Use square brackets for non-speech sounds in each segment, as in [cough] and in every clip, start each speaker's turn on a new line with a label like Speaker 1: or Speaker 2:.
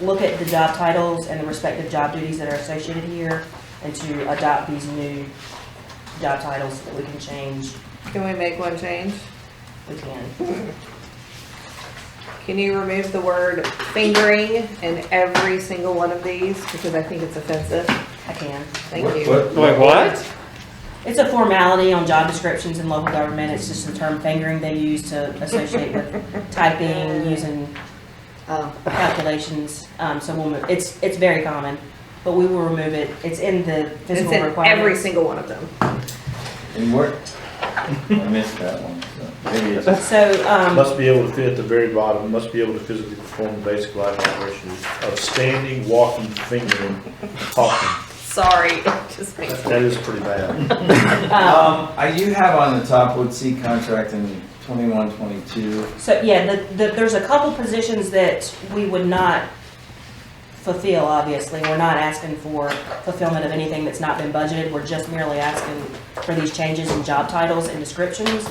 Speaker 1: look at the job titles and the respective job duties that are associated here and to adopt these new job titles that we can change,
Speaker 2: Can we make one change?
Speaker 1: we can.
Speaker 2: Can you remove the word fingering in every single one of these? Because I think it's offensive.
Speaker 1: I can.
Speaker 2: Thank you.
Speaker 3: Wait, what?
Speaker 1: It's a formality on job descriptions in local government. It's just the term fingering they use to associate
Speaker 2: [laughs]
Speaker 1: with typing, using
Speaker 2: Oh,
Speaker 1: calculations. Um, so we'll move, it's, it's very common, but we will remove it. It's in the
Speaker 2: It's
Speaker 1: physical
Speaker 2: in every
Speaker 1: requirements.
Speaker 2: single one of them.
Speaker 4: And where, I missed that one, so maybe it's,
Speaker 1: So, um,
Speaker 5: Must be able to fit at the very bottom, must be able to physically perform the basic life operations of standing, walking, fingering, talking.
Speaker 2: Sorry, [laughs] it just makes
Speaker 5: That is pretty bad.
Speaker 1: um,
Speaker 4: um, I do have on the top Wood Sea contract in twenty-one, twenty-two.
Speaker 1: so yeah, the, the, there's a couple positions that we would not fulfill, obviously. We're not asking for fulfillment of anything that's not been budgeted. We're just merely asking for these changes in job titles and descriptions.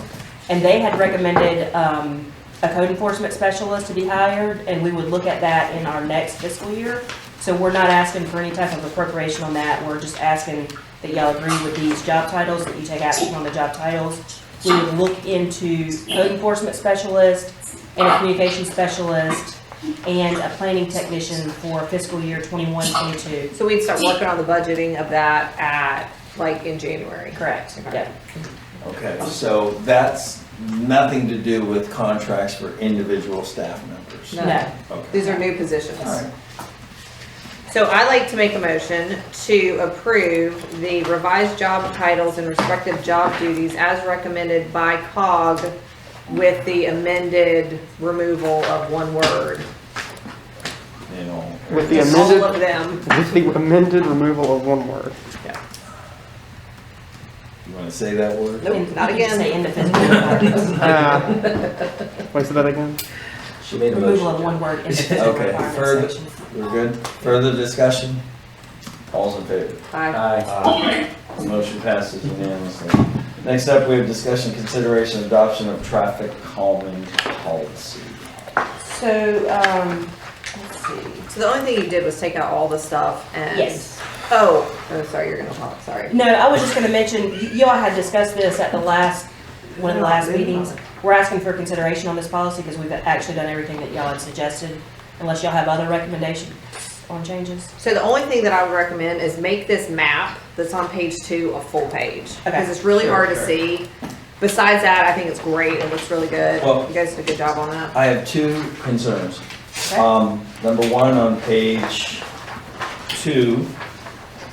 Speaker 1: And they had recommended um, a code enforcement specialist to be hired, and we would look at that in our next fiscal year. So we're not asking for any type of appropriation on that. We're just asking that y'all agree with these job titles, that you take action on the job titles. We would look into code enforcement specialist and a communication specialist and a planning technician for fiscal year 21, 22.
Speaker 2: So we'd start working on the budgeting of that at, like, in January.
Speaker 1: Correct, yeah.
Speaker 4: Okay, so that's nothing to do with contracts for individual staff members?
Speaker 2: No.
Speaker 1: No.
Speaker 4: Okay,
Speaker 2: These are new positions.
Speaker 4: all right.
Speaker 2: So I'd like to make a motion to approve the revised job titles and respective job duties as recommended by COG with the amended removal of one word.
Speaker 4: You know,
Speaker 3: With the
Speaker 2: All of
Speaker 3: amended,
Speaker 2: them.
Speaker 3: with the amended removal of one word.
Speaker 4: you wanna say that word?
Speaker 2: Nope,
Speaker 1: And
Speaker 2: not
Speaker 1: you can just [laughs]
Speaker 2: again.
Speaker 1: Say in the physical requirements.
Speaker 3: Uh, Wait, say that again?
Speaker 4: She made a
Speaker 1: Removal of
Speaker 4: motion.
Speaker 1: one word in the physical
Speaker 4: Okay, further-
Speaker 1: requirements section.
Speaker 4: We're good? Further discussion? All's in favor?
Speaker 2: Aye.
Speaker 4: Aye. The motion passes unanimously. Next up, we have discussion, consideration, and adoption of traffic calming policy.
Speaker 1: So, um, let's see.
Speaker 2: So the only thing you did was take out all the stuff and.
Speaker 1: Yes.
Speaker 2: Oh, oh, sorry, you're gonna talk, sorry.
Speaker 1: No, I was just gonna mention, y- y'all had discussed this at the last, one of the last meetings. We're asking for consideration on this policy because we've actually done everything that y'all had suggested, unless y'all have other recommendations on changes.
Speaker 2: So the only thing that I would recommend is make this map that's on page two a full page. Because it's really
Speaker 4: Sure,
Speaker 2: hard to
Speaker 4: sure.
Speaker 2: see. Besides that, I think it's great. It looks really good.
Speaker 4: Well-
Speaker 2: You guys did a good job on that.
Speaker 4: I have two concerns. Um, number one, on page two,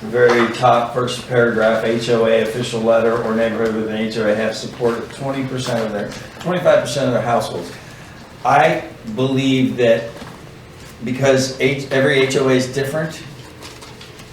Speaker 4: the very top first paragraph, HOA official letter or neighborhood with an HOA have support of twenty percent of their, twenty-five percent of their households. I believe that because H, every HOA is different,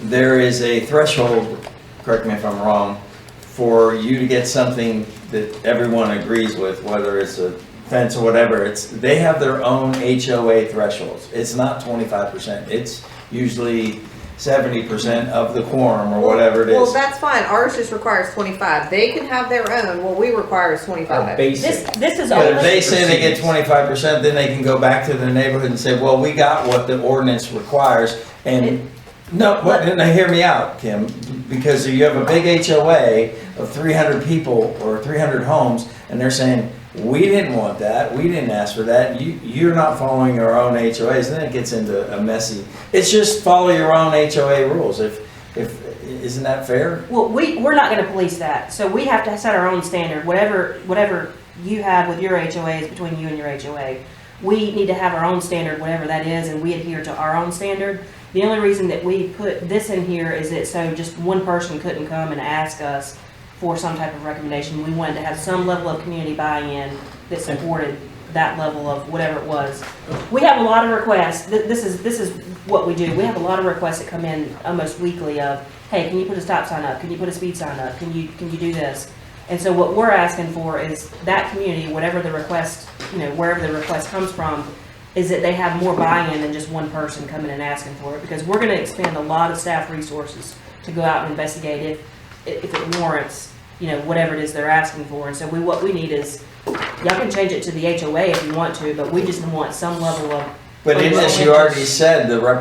Speaker 4: there is a threshold, correct me if I'm wrong, for you to get something that everyone agrees with, whether it's a fence or whatever, it's, they have their own HOA thresholds. It's not twenty-five percent, it's usually seventy percent of the quorum or whatever it
Speaker 2: Well,
Speaker 4: is.
Speaker 2: that's fine. Ours just requires twenty-five. They can have their own. What we require is
Speaker 4: Our
Speaker 2: twenty-five.
Speaker 4: basic.
Speaker 1: This, this is
Speaker 4: But if
Speaker 1: only,
Speaker 4: they say they get twenty-five percent, then they can go back to their neighborhood and say, well, we got what the ordinance requires, and, no, what, no, hear me out, Kim, because you have a big HOA of three hundred people or three hundred homes, and they're saying, we didn't want that, we didn't ask for that, you, you're not following your own HOAs, then it gets into a messy, it's just follow your own HOA rules, if, if, isn't that fair?
Speaker 1: well, we, we're not gonna police that, so we have to set our own standard, whatever, whatever you have with your HOA is between you and your HOA. We need to have our own standard, whatever that is, and we adhere to our own standard. The only reason that we put this in here is that so just one person couldn't come and ask us for some type of recommendation. We wanted to have some level of community buy-in that supported that level of whatever it was. We have a lot of requests, Th- this is, this is what we do, we have a lot of requests that come in almost weekly of, hey, can you put a stop sign up, can you put a speed sign up, can you, can you do this? And so what we're asking for is that community, whatever the request, you know, wherever the request comes from, is that they have more buy-in than just one person coming and asking for it, because we're gonna expend a lot of staff resources to go out and investigate if, if it warrants, you know, whatever it is they're asking for, and so we, what we need is, y'all can change it to the HOA if you want to, but we just want some level of
Speaker 4: But in this, you already said the rep,